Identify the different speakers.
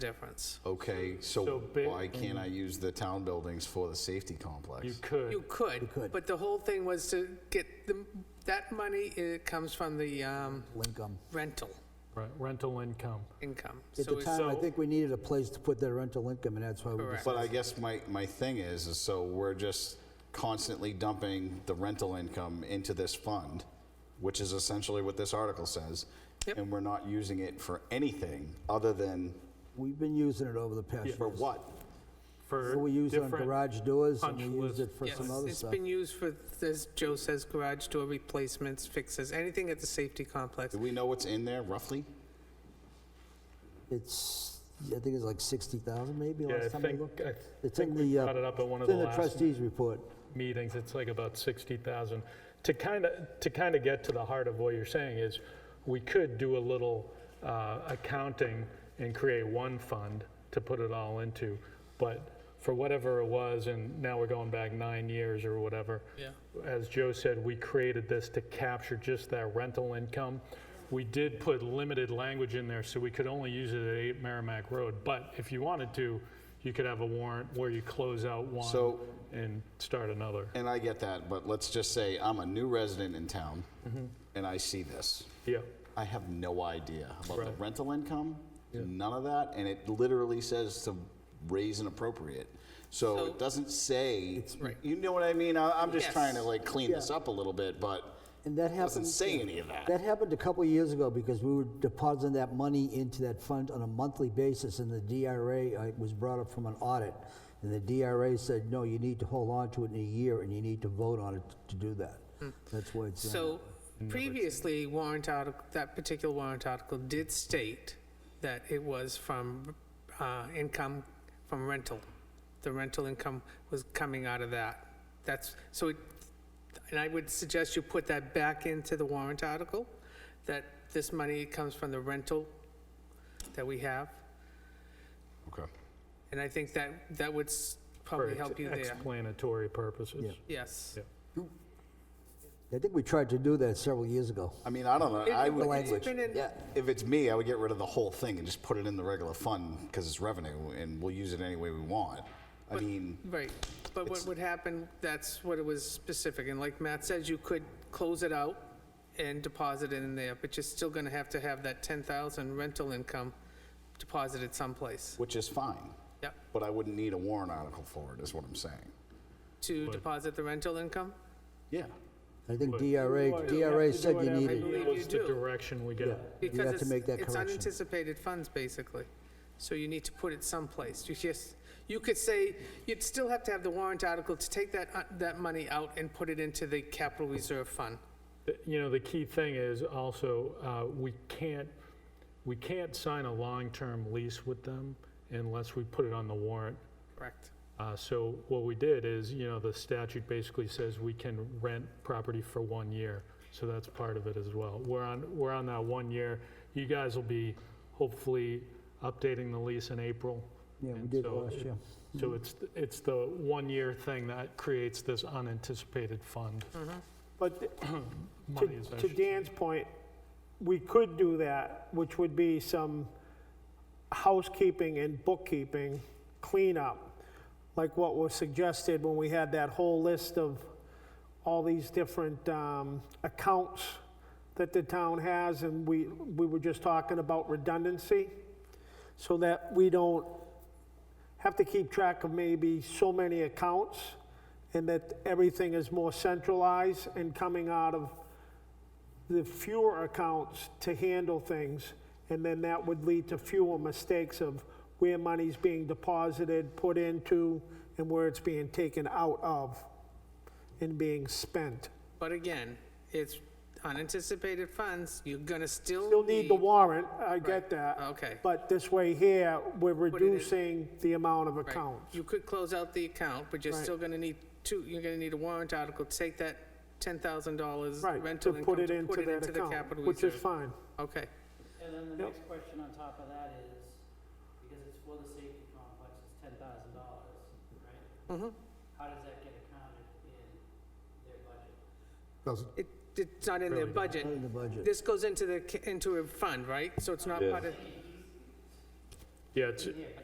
Speaker 1: difference.
Speaker 2: Okay,
Speaker 3: So
Speaker 2: so
Speaker 3: big
Speaker 2: why can't I use the town buildings for the safety complex?
Speaker 3: could.
Speaker 1: You could, but the whole thing was to get the, that money, it comes from the um,
Speaker 4: Lincoln.
Speaker 1: rental
Speaker 3: Right, rental income.
Speaker 1: income.
Speaker 4: At
Speaker 1: So
Speaker 4: the
Speaker 1: it's-
Speaker 4: time, I
Speaker 3: so-
Speaker 4: think we needed a place to put that rental income, and that's why we
Speaker 1: Correct.
Speaker 2: But I guess my, my thing is, is so we're just constantly dumping the rental income into this fund, which is essentially what this article says.
Speaker 1: Yep.
Speaker 2: And we're not using it for anything other than,
Speaker 4: We've been using it over the past year.
Speaker 2: for what?
Speaker 3: For
Speaker 4: We use it on
Speaker 3: different-
Speaker 4: garage doors, and we
Speaker 3: punch
Speaker 4: used it
Speaker 3: list.
Speaker 4: for
Speaker 1: Yes,
Speaker 4: some other
Speaker 1: it's
Speaker 4: stuff.
Speaker 1: been used for, as Joe says, garage door replacements, fixes, anything at the safety complex.
Speaker 2: Do we know what's in there roughly?
Speaker 4: It's, I think it's like 60,000 maybe,
Speaker 3: Yeah, I
Speaker 4: last time I
Speaker 3: think,
Speaker 4: looked.
Speaker 3: I
Speaker 4: It's in
Speaker 3: think we
Speaker 4: the, uh,
Speaker 3: cut it up at one of the
Speaker 4: It's in the
Speaker 3: last
Speaker 4: trustees' report.
Speaker 3: meetings. It's like about 60,000. To kind of, to kind of get to the heart of what you're saying is, we could do a little uh, accounting and create one fund to put it all into, but for whatever it was, and now we're going back nine years or whatever.
Speaker 1: Yeah.
Speaker 3: As Joe said, we created this to capture just that rental income. We did put limited language in there, so we could only use it at 8 Merrimack Road. But if you wanted to, you could have a warrant where you close out one
Speaker 2: So-
Speaker 3: and start another.
Speaker 2: And I get that, but let's just say I'm a new resident in town
Speaker 1: Mm-hmm.
Speaker 2: and I see this.
Speaker 3: Yeah,
Speaker 2: I have no idea about the
Speaker 3: Right.
Speaker 2: rental income, none of that, and it literally says to raise and appropriate. So
Speaker 1: So-
Speaker 2: it doesn't say,
Speaker 1: Right.
Speaker 2: you know what I mean? I- I'm just
Speaker 1: Yes.
Speaker 2: trying to like clean this up a little bit, but
Speaker 4: And that
Speaker 2: it doesn't
Speaker 4: happened,
Speaker 2: say any of that.
Speaker 4: that happened a couple years ago because we were depositing that money into that fund on a monthly basis and the DRA, uh, it was brought up from an audit. And the DRA said, no, you need to hold on to it in a year and you need to vote on it to do that.
Speaker 3: Hmm.
Speaker 4: That's why it's, in there.
Speaker 1: So previously, warrant article, that particular warrant article did state that it was from uh, income from rental. The rental income was coming out of that. That's, so it, and I would suggest you put that back into the warrant article, that this money comes from the rental that we have.
Speaker 2: Okay.
Speaker 1: And I think that, that would s-
Speaker 3: for
Speaker 1: probably help you there.
Speaker 3: explanatory purposes.
Speaker 1: Yes.
Speaker 3: Yeah.
Speaker 4: I think we tried to do that several years ago.
Speaker 2: I mean, I don't know, I
Speaker 1: It-
Speaker 2: would,
Speaker 1: It's been in,
Speaker 4: Yeah,
Speaker 2: if it's me, I would get rid of the whole thing and just put it in the regular fund, because it's revenue, and we'll use it any way we want. I mean,
Speaker 1: Right, but what
Speaker 2: It's-
Speaker 1: would happen, that's what it was specific, and like Matt says, you could close it out and deposit it in there, but you're still gonna have to have that 10,000 rental income deposited someplace.
Speaker 2: which is fine,
Speaker 1: Yep,
Speaker 2: but I wouldn't need a warrant article for it, is what I'm saying.
Speaker 1: to deposit the rental income?
Speaker 2: Yeah.
Speaker 4: I think DRA, DRA said you needed.
Speaker 1: believe
Speaker 3: It was
Speaker 1: you
Speaker 3: the
Speaker 1: do.
Speaker 3: direction we got.
Speaker 1: Because
Speaker 4: have to
Speaker 1: it's-
Speaker 4: make that
Speaker 1: It's
Speaker 4: correction.
Speaker 1: unanticipated funds, basically, so you need to put it someplace. You just, you could say, you'd still have to have the warrant article to take that, uh, that money out and put it into the capital reserve fund.
Speaker 3: You know, the key thing is also, uh, we can't, we can't sign a long-term lease with them unless we put it on the warrant.
Speaker 1: Correct.
Speaker 3: Uh, So what we did is, you know, the statute basically says we can rent property for one year. So that's part of it as well. We're on, we're on that one year. You guys will be hopefully updating the lease in April.
Speaker 4: Yeah, we
Speaker 3: And
Speaker 4: did
Speaker 3: so
Speaker 4: last
Speaker 3: it-
Speaker 4: year.
Speaker 3: So it's, th- it's the one-year thing that creates this unanticipated fund.
Speaker 5: But th-
Speaker 3: Money is
Speaker 5: to- to
Speaker 3: actually-
Speaker 5: Dan's point, we could do that, which would be some housekeeping and bookkeeping cleanup, like what was suggested when we had that whole list of all these different um, accounts that the town has, and we, we were just talking about redundancy, so that we don't have to keep track of maybe so many accounts and that everything is more centralized and coming out of the fewer accounts to handle things. And then that would lead to fewer mistakes of where money's being deposited, put into, and where it's being taken out of and being spent.
Speaker 1: But again, it's unanticipated funds, you're gonna still.
Speaker 5: Still need the warrant, I get that.
Speaker 1: Okay.
Speaker 5: But this way here, we're
Speaker 1: it in.
Speaker 5: reducing the amount of
Speaker 1: Right.
Speaker 5: accounts.
Speaker 1: You could close out the account, but you're
Speaker 5: Right.
Speaker 1: still gonna need two, you're gonna need a warrant article, to take that ten thousand dollars
Speaker 5: Right,
Speaker 1: rental
Speaker 5: to
Speaker 1: income.
Speaker 5: put it into
Speaker 1: the
Speaker 5: that account,
Speaker 1: capital
Speaker 5: which is
Speaker 1: reserve.
Speaker 5: fine.
Speaker 1: Okay,
Speaker 6: And then the
Speaker 5: Yep.
Speaker 6: next question on top of that is, because it's for the safety complex, it's ten thousand dollars, right?
Speaker 1: Mhm.
Speaker 6: How does that get accounted in their budget?
Speaker 1: it, it's not in their budget.
Speaker 4: In the budget.
Speaker 1: This goes into the, ca- into a fund, right? So it's not part of,
Speaker 3: Yeah, it's,